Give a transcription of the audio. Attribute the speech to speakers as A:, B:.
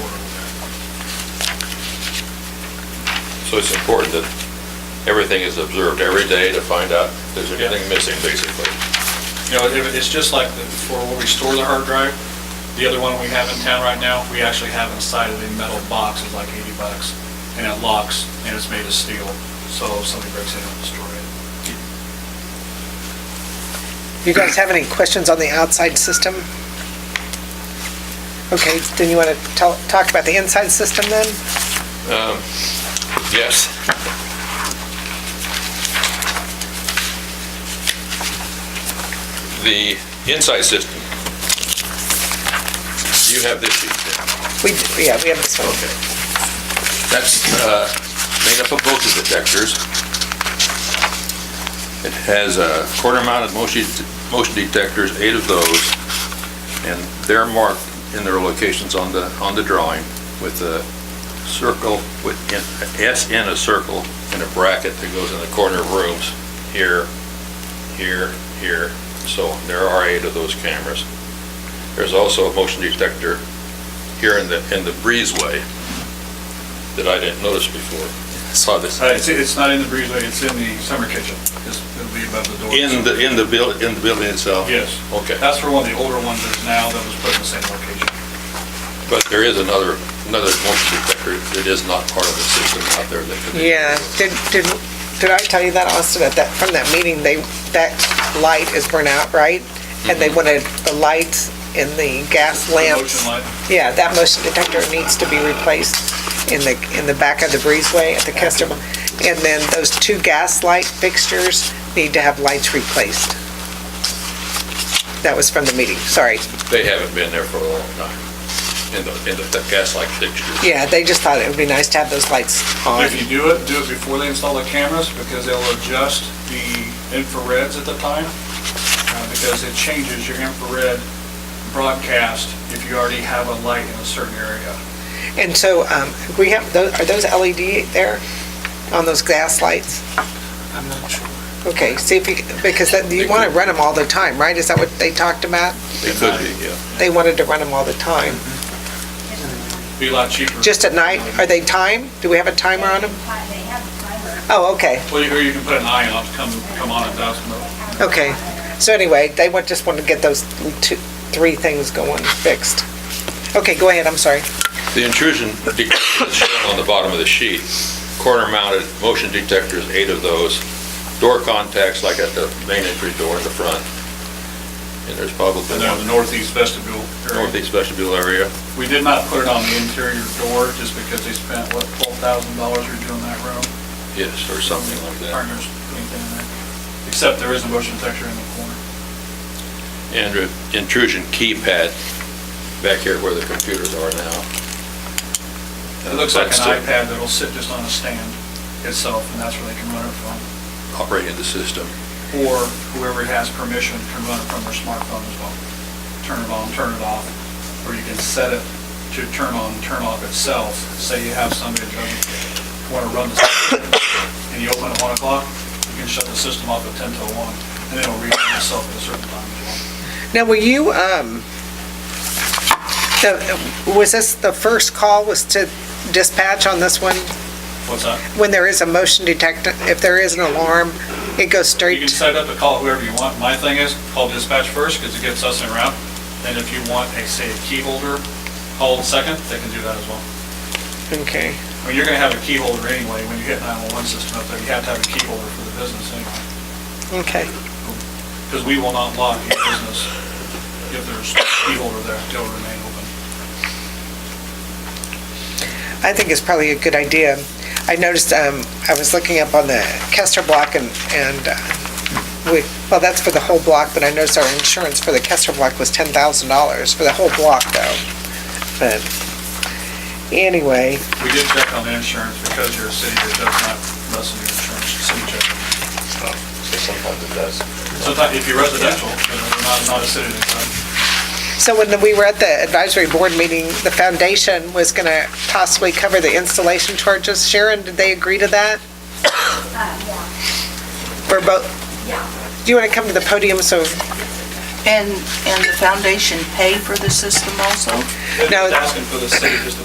A: So it's important that everything is observed every day to find out if there's
B: Yeah.
A: anything missing, basically.
B: You know, it- it's just like the- for where we store the hard drive, the other one we have in town right now, we actually have inside of a metal box, it's like 80 bucks, and it locks, and it's made of steel, so if somebody breaks in, it'll destroy it.
C: You guys have any questions on the outside system? Okay, then you want to tell, talk about the inside system then?
A: Yes. The inside system, you have this sheet there.
C: We, yeah, we have this one.
A: Okay. That's uh, made up of voltage detectors. It has uh, quarter-mounted motion motion detectors, eight of those, and they're marked in their locations on the, on the drawing with a circle, with an- a S in a circle, and a bracket that goes in the corner of rooms, here, here, here. So there are eight of those cameras. There's also a motion detector here in the, in the breezeway that I didn't notice before. I Saw this.
B: Uh, It's it's not in the breezeway, it's in the summer kitchen, It's- it'll be above the door.
A: In the, in the buil, in the building itself?
B: Yes,
A: Okay,
B: that's for one of the older ones that's now that was put in the same location.
A: but there is another, another motion detector that is not part of the system out there that could be.
C: Yeah, did, did, did I tell you that, Austin, at that, from that meeting, they, that light is burnt out, right? And they wanted the lights in Mm-hmm. the gas lamps.
B: Motion light.
C: Yeah, that motion detector needs to be replaced in the, in the back of the breezeway at the customer. And then those two gas light fixtures need to have lights replaced. That was from the meeting, sorry.
A: They haven't been there for a long time, in the, in the gaslight fixtures.
C: Yeah, they just thought it would be nice to have those lights on.
B: If you do it, do it before they install the cameras, because they'll adjust the infrareds at the time, uh, because it changes your infrared broadcast if you already have a light in a certain area.
C: And so, um, we have, tho- are those LED there on those gas lights?
B: I'm not sure.
C: Okay, see if you, because that- you want to run them all the time, right? Is that what they talked about?
A: They could be, yeah.
C: They wanted to run them all the time.
B: Be a lot cheaper.
C: Just at night? Are they timed? Do we have a timer on them?
D: They have a timer.
C: Oh, okay.
B: Well, you- or you can put an eye on, it, come, come on at dusk, but
C: Okay, so anyway, they want, just want to get those two, three things going fixed. Okay, go ahead, I'm sorry.
A: The intrusion detector is shown on the bottom of the sheet. Corner-mounted motion detectors, eight of those. Door contacts, like at the main entry door in the front. And there's probably
B: and then the
A: one
B: northeast vestibule area.
A: northeast vestibule area.
B: We did not put it on the interior door, just because they spent, what, twelve thousand dollars redoing that room?
A: Yes, or something like that.
B: Partners, anything in there. Except there is a motion detector in the corner.
A: And an intrusion keypad back here where the computers are now.
B: It looks like an
A: That's to
B: iPad that'll sit just on a stand itself, and that's where they can run it from.
A: Operate in the system.
B: Or whoever has permission can run it from their smartphone as well. Turn it on, turn it off, or you can set it to turn on, turn off itself. Say you have somebody that doesn't want to run the system, and you open at 1 o'clock, you can shut the system off at 10 till 1, and it'll read itself at a certain time as well.
C: Now, were you, um, the, was this, the first call was to dispatch on this one?
B: What's that?
C: When there is a motion detector, if there is an alarm, it goes
B: You can
C: straight,
B: set up to call whoever you want. My thing is, call dispatch first, because it gets us in route. And if you want a, say, a key holder, call second, they can do that as well.
C: okay.
B: I mean, you're gonna have a key holder anyway, when you hit 911 system up there, you have to have a key holder for the business anyway.
C: Okay,
B: Because we will not lock your business if there's a key holder there, it'll remain open.
C: I think it's probably a good idea. I noticed, um, I was looking up on the Kester block and, and uh, we, well, that's for the whole block, but I noticed our insurance for the Kester block was ten thousand dollars for the whole block though. But, anyway,
B: We did check on the insurance, because you're a city that does not lessen your insurance, city check.
A: Sometimes it does.
B: Sometimes, if you're residential, you know, we're not, not a city that does.
C: so when we were at the advisory board meeting, the foundation was gonna possibly cover the installation charges. Sharon, did they agree to that?
D: Uh, yeah,
C: We're both,
D: yeah.
C: do you wanna come to the podium so
E: And, and the foundation pay for the system also?
C: No.
B: It's Asking for the city just to